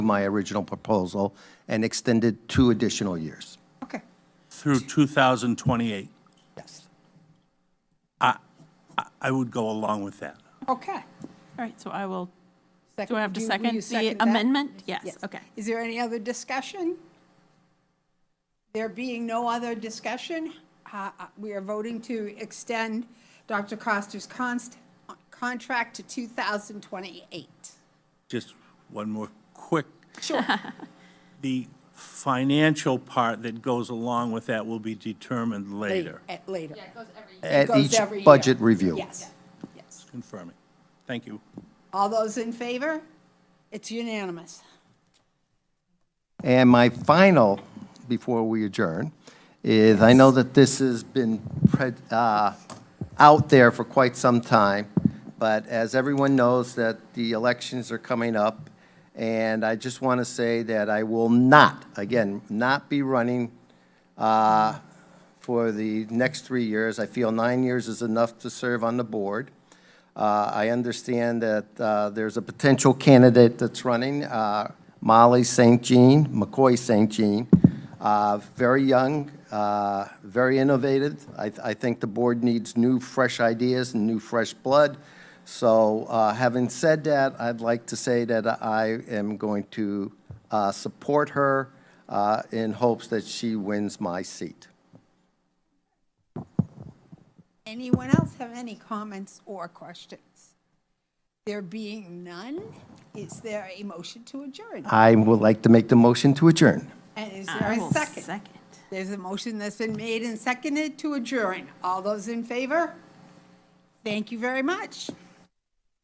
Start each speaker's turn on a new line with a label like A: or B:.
A: my original proposal and extended two additional years.
B: Okay.
C: through 2028.
B: Yes.
C: I- I would go along with that.
B: Okay.
D: All right, so I will, do
B: Second-
D: I have to
B: will
D: second
B: you
D: the
B: that?
D: amendment? Yes, okay.
B: Is there any other discussion? There being no other discussion, uh, uh, we are voting to extend Dr. Costa's const, contract to 2028.
C: Just one more quick,
B: Sure.
C: the financial part that goes along with that will be determined later.
B: At Later.
A: At
B: Goes
A: each
B: every year.
A: budget review.
B: Yes, yes.
C: Confirming. Thank you.
B: All those in favor? It's unanimous.
A: And my final, before we adjourn, is I know that this has been pred- uh, out there for quite some time, but as everyone knows that the elections are coming up, and I just want to say that I will not, again, not be running uh, for the next three years. I feel nine years is enough to serve on the board. Uh, I understand that uh, there's a potential candidate that's running, uh, Molly St. Jean, McCoy St. Jean, uh, very young, uh, very innovative. I I think the board needs new, fresh ideas and new, fresh blood. So uh, having said that, I'd like to say that I am going to uh, support her uh, in hopes that she wins my seat.
B: Anyone else have any comments or questions? There being none, is there a motion to adjourn?
A: I would like to make the motion to adjourn.
B: And is there
D: I will
B: a second?
D: second.
B: There's a motion that's been made and seconded to adjourn. All those in favor? Thank you very much.